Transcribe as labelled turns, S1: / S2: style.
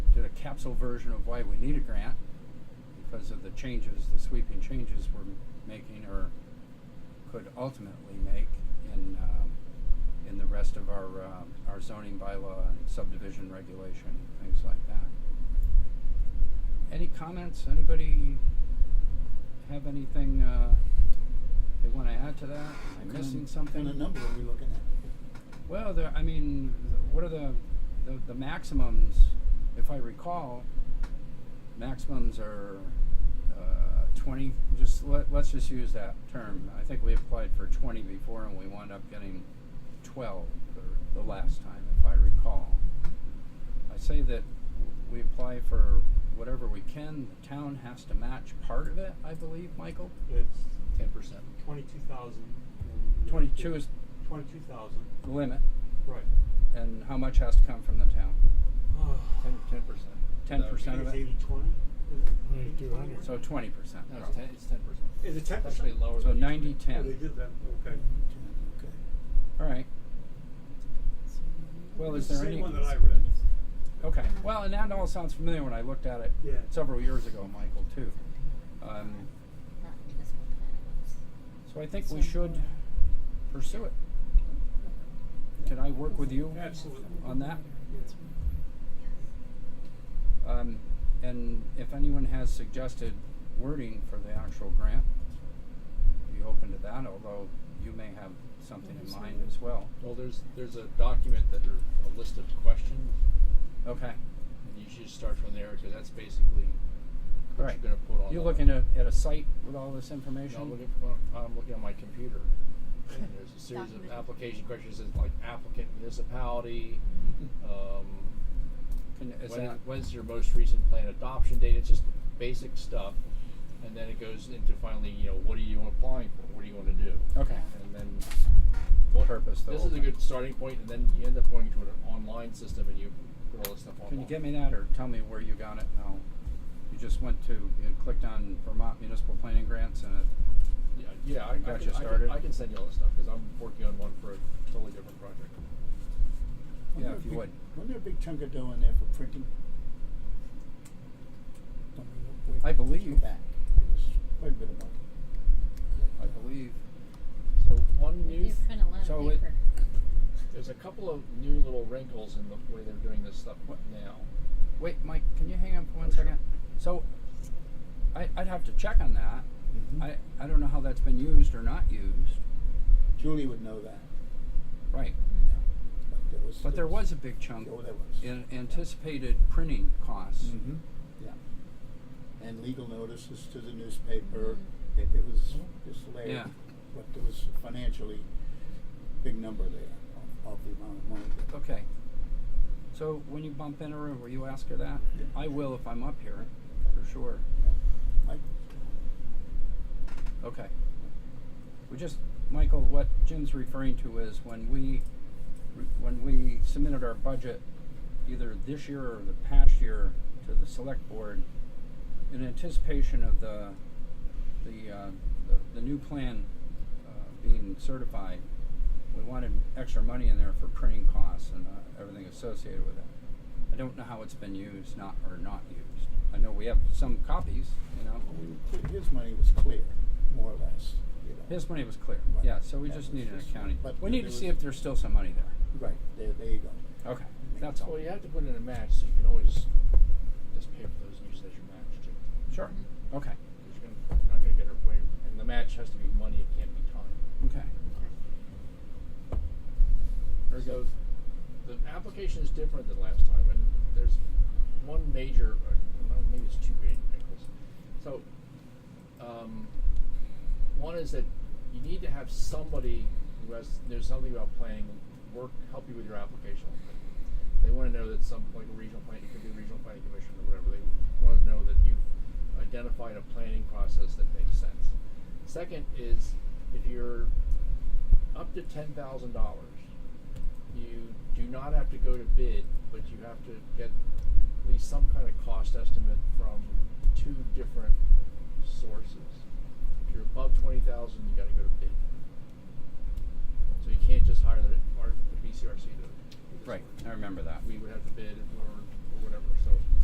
S1: capsule version of why we need a grant because of the changes, the sweeping changes we're making or could ultimately make in, um, in the rest of our, um, our zoning bylaw and subdivision regulation, things like that. Any comments? Anybody have anything, uh, they wanna add to that? Am I missing something?
S2: Kind of number are we looking at?
S1: Well, there, I mean, th- what are the, the, the maximums, if I recall, maximums are, uh, twenty, just let, let's just use that term. I think we applied for twenty before and we wound up getting twelve the, the last time, if I recall. I say that we apply for whatever we can, the town has to match part of it, I believe, Michael?
S3: It's
S2: Ten percent.
S3: twenty-two thousand.
S1: 22 is-
S3: Twenty-two thousand,
S1: The limit,
S3: right.
S1: and how much has to come from the town?
S2: Ten, ten percent.
S1: 10% of
S3: It's
S1: it?
S3: eighty-twenty?
S1: So twenty percent.
S2: No, it's ten, it's ten percent.
S3: Is it ten
S2: It's actually
S3: percent?
S2: lower
S1: So
S2: than. it used to be.
S1: 90-10.
S3: Oh, they did that, okay.
S2: Okay.
S1: All right. Well, is
S3: It's the
S1: there any?
S3: Same one that I read.
S1: Okay, well, and that all sounds familiar when I looked at it
S3: Yeah.
S1: several years ago, Michael, too. Um,
S4: Not municipal planning ones.
S1: so I think we should pursue it. Can I work with you
S3: Absolutely.
S1: on that?
S4: Yes.
S1: Um, and if anyone has suggested wording for the actual grant, be open to that, although you may have something in mind as well.
S2: Well, there's, there's a document that are, a list of questions,
S1: Okay,
S2: and you should start from there, cause that's basically
S1: all
S2: what
S1: right.
S2: you're gonna put on.
S1: You're
S2: the-
S1: looking at, at a site with all this
S2: No, I'm
S1: information?
S2: looking, well, I'm looking at my computer, and there's a series of
S4: Document.
S2: application questions, it's like applicant municipality, um,
S1: Can- Hmm. Is
S2: when,
S1: that,
S2: when's your most recent plan adoption date, it's just basic stuff. And then it goes into finally, you know, what are you applying for, what do you wanna do?
S1: okay,
S2: And then
S1: what purpose the
S2: This
S1: whole
S2: is a
S1: thing?
S2: good starting point, and then you end up going to an online system and you put all this stuff online.
S1: Can you get me that or tell me where you got it? No. You just went to, you clicked on Vermont Municipal Planning Grants and it,
S2: Yeah, yeah I,
S1: Got
S2: I, can,
S1: you
S2: I can-
S1: started.
S2: I can send you all this stuff because I'm working on one for a totally different project.
S1: Yeah,
S5: Wasn't
S1: if
S5: there
S1: you
S5: a
S1: would.
S5: big- Wasn't there a big chunk of dough in there for printing? Don't we know- wait,
S1: I believe-
S5: go Back, it was quite a bit of money.
S1: I believe.
S2: So one
S4: You
S2: new,
S4: print a lot
S1: so
S4: of
S1: it-
S4: paper.
S2: there's a couple of new little wrinkles in the way they're doing this stuff
S1: What?
S2: now.
S1: Wait, Mike, can you hang on for one
S2: Oh, sure.
S1: second? So I, I'd have to check on that.
S5: Mm-hmm.
S1: I, I don't know how that's been used or not used.
S5: Julie would know that.
S1: Right.
S5: yeah,
S4: Mm-hmm.
S5: But there was.
S1: But there was a big chunk
S5: Oh, there was.
S1: in anticipated printing costs.
S5: Mm-hmm, yeah. And legal notices to the newspaper, it, it was just layered.
S1: Yeah.
S5: But there was financially big number there of, of the amount of money. that-
S1: Okay. So when you bump into her, will you ask her that?
S5: Yeah.
S1: I will if I'm up here, for sure.
S5: Like,
S1: Okay. We just, Michael, what Jim's referring to is when we, when we submitted our budget, either this year or the past year, to the select board, in anticipation of the, the, uh, the, the new plan, uh, being certified, we wanted extra money in there for printing costs and, uh, everything associated with it. I don't know how it's been used, not, or not used. I know we have some copies, you know,
S5: well, we- His money was clear, more or less, you know.
S1: His money was clear,
S5: Right.
S1: yeah, so we
S5: That
S1: just
S5: was
S1: need an
S5: just-
S1: accounting.
S5: but
S1: We need
S5: there
S1: to see
S5: was-
S1: if there's still some money there.
S5: Right, there, there you go.
S1: Okay, that's all.
S2: Well, you have to put in a match, so you can always just pay for those and use it as your match too.
S1: Sure,
S4: Mm-hmm.
S1: okay,
S2: Because you're, gonna, you're not going to get away, and the match has to be money; it can't be time.
S1: okay. Very
S2: so
S1: good.
S2: the application is different than last time, and there's one major, uh, or no, maybe it's two great wrinkles. So, um, one is that you need to have somebody who has knows something about planning work help you with your application. They want to know that some like a regional plan, it could be a regional planning commission or whatever. They want to know that you've identified a planning process that makes sense. Second is if you're up to ten thousand dollars, you do not have to go to bid, but you have to get at least some kind of cost estimate from two different sources. If you're above twenty thousand, you gotta go to bid. So you can't just hire the, our, the BCRC to do this
S1: Right,
S2: work.
S1: I remember that.
S2: We would have to bid or, or whatever, so.